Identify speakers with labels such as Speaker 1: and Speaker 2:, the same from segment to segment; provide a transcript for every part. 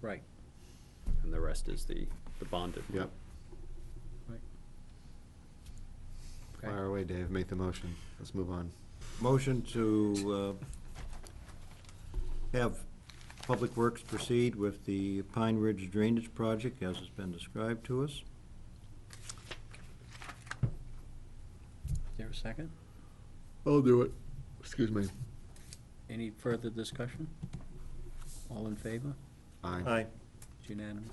Speaker 1: Right,
Speaker 2: and the rest is the, the bonded. one.
Speaker 3: Yep,
Speaker 1: right. Okay.
Speaker 3: fire away, Dave, make the motion, let's move on.
Speaker 4: Motion to uh, have Public Works proceed with the Pine Ridge Drainage Project as it's been described to us.
Speaker 1: Is there a second?
Speaker 3: I'll do it, excuse me.
Speaker 1: Any further discussion? All in favor?
Speaker 3: Aye.
Speaker 1: It's unanimous.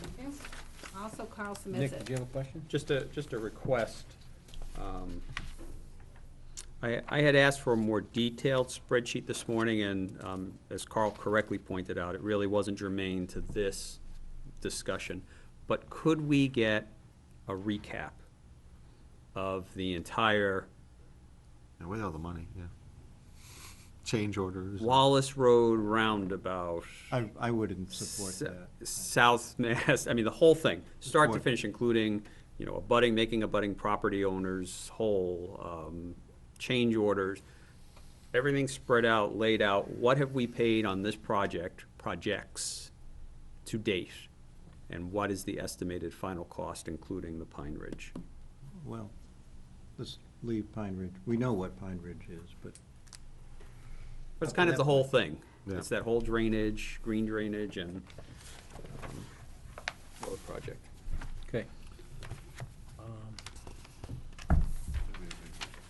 Speaker 5: Thank you. Also, Carl submits
Speaker 1: Nick, did you
Speaker 5: it.
Speaker 1: have a question?
Speaker 2: Just a, just a request. Um, I, I had asked for a more detailed spreadsheet this morning, and um, as Carl correctly pointed out, it really wasn't germane to this discussion. But could we get a recap of the entire
Speaker 3: And with all the money, yeah. Change orders.
Speaker 2: Wallace Road roundabout?
Speaker 4: I, I wouldn't support that.
Speaker 2: S- South Mass, I mean, the whole thing, start to
Speaker 4: Support.
Speaker 2: finish, including, you know, abutting, making abutting property owners whole, um, change orders, everything spread out, laid out, what have we paid on this project, projects to date? And what is the estimated final cost, including the Pine Ridge?
Speaker 4: Well, let's leave Pine Ridge. We know what Pine Ridge is, but
Speaker 2: But it's kind of the whole thing.
Speaker 3: Yeah.
Speaker 2: It's that whole drainage, green drainage and um, road project.
Speaker 1: Okay.
Speaker 3: Um,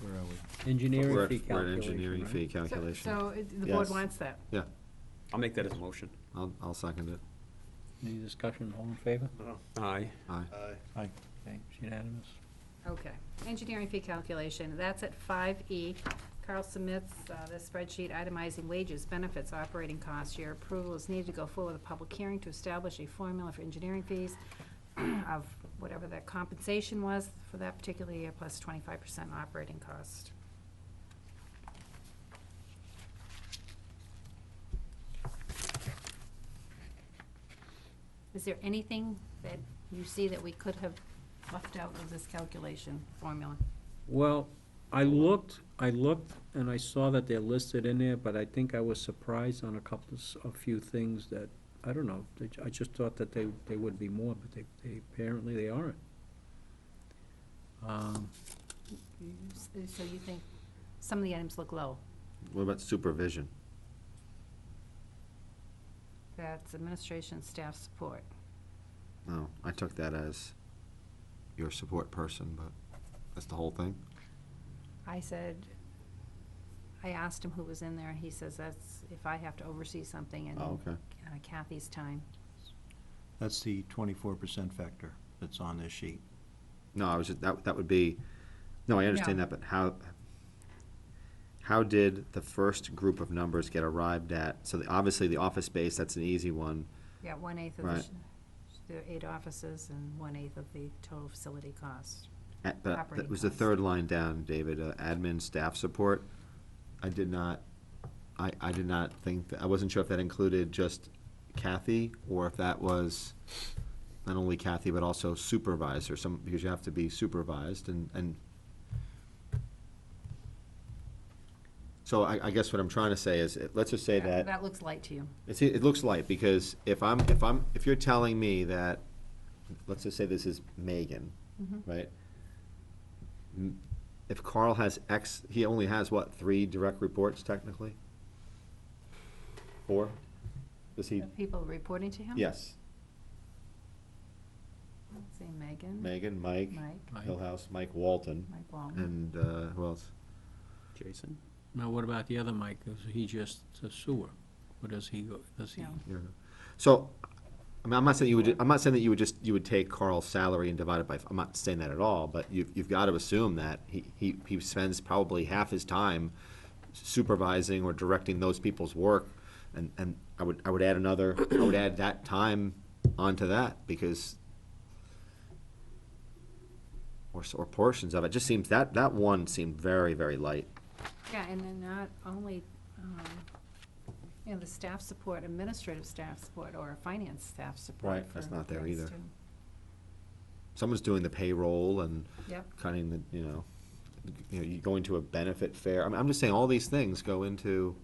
Speaker 4: where are we?
Speaker 1: Engineering
Speaker 3: We're
Speaker 1: fee
Speaker 3: at- we're at
Speaker 1: calculation,
Speaker 3: engineering fee
Speaker 1: right?
Speaker 5: So-
Speaker 3: calculation.
Speaker 5: So, it- the board
Speaker 3: Yes.
Speaker 5: wants that.
Speaker 3: Yeah,
Speaker 2: I'll make that as a motion.
Speaker 3: I'll, I'll second it,
Speaker 1: Any discussion, all in favor?
Speaker 2: Aye.
Speaker 3: aye.
Speaker 4: Aye.
Speaker 1: Okay, it's unanimous.
Speaker 5: Okay. Engineering fee calculation, that's at five E. Carl submits uh, the spreadsheet itemizing wages, benefits, operating costs. Your approval is needed to go forward with a public hearing to establish a formula for engineering fees of whatever the compensation was for that particular year, plus twenty-five percent operating cost. Is there anything that you see that we could have left out of this calculation formula?
Speaker 1: Well, I looked, I looked, and I saw that they're listed in there, but I think I was surprised on a couple, of s- a few things that, I don't know, they ju- I just thought that they, they would be more, but they, they, apparently they aren't. Um,
Speaker 5: You s- Mm-hmm. So you think some of the items look low?
Speaker 3: What about supervision?
Speaker 5: That's administration staff support.
Speaker 3: No, I took that as your support person, but that's the whole thing?
Speaker 5: I said, I asked him who was in there, and he says that's if I have to oversee something in
Speaker 3: Oh, okay.
Speaker 5: uh, Kathy's time.
Speaker 4: That's the twenty-four percent factor that's on this sheet.
Speaker 3: No, I was just, that, that would be, no, I understand
Speaker 5: Yeah.
Speaker 3: that, but how, how did the first group of numbers get arrived at? So the- obviously, the office space, that's an easy one.
Speaker 5: Yeah, one-eighth of the,
Speaker 3: Right.
Speaker 5: sh- there are eight offices and one-eighth of the total facility cost.
Speaker 3: At- But
Speaker 5: Operating
Speaker 3: that was the
Speaker 5: costs.
Speaker 3: third line down, David, uh, admin staff support. I did not, I, I did not think, that- I wasn't sure if that included just Kathy, or if that was not only Kathy, but also supervisor, some, because you have to be supervised, and, and so I, I guess what I'm trying to say is, uh, let's just say that.
Speaker 5: That looks light to you.
Speaker 3: It's, it looks light, because if I'm, if I'm, if you're telling me that, let's just say this is Megan,
Speaker 5: Mhm.
Speaker 3: right? M- If Carl has X, he only has what, three direct reports technically? Four? Does he,
Speaker 5: The people reporting to him?
Speaker 3: yes,
Speaker 5: Let's See Megan?
Speaker 3: Megan, Mike,
Speaker 5: Mike, Uh-huh.
Speaker 1: Mike.
Speaker 3: Hillhouse, Mike Walton,
Speaker 5: Mike Walton.
Speaker 3: and, uh, who else?
Speaker 2: Jason?
Speaker 1: Now, what about the other Mike? Is he just a sewer? Or does he go, does he?
Speaker 5: No.
Speaker 3: Yeah. So, I mean, I'm not saying you would, ju- I'm not saying that you would just, you would take Carl's salary and divide it by, f- I'm not saying that at all, but you've, you've got to assume that he, he, he spends probably half his time supervising or directing those people's work, and, and I would, I would add another, I would add that time onto that, because or, s- or portions of it, just seems, that, that one seemed very, very light.
Speaker 5: Yeah, and then not only, um, you know, the staff support, administrative staff support, or finance staff support.
Speaker 3: Right, that's
Speaker 5: for
Speaker 3: not there
Speaker 5: things
Speaker 3: either.
Speaker 5: too.
Speaker 3: Someone's doing the payroll and
Speaker 5: Yep.
Speaker 3: cutting the, you know, you know, you going to a benefit fair. I mean, I'm just saying all these things go into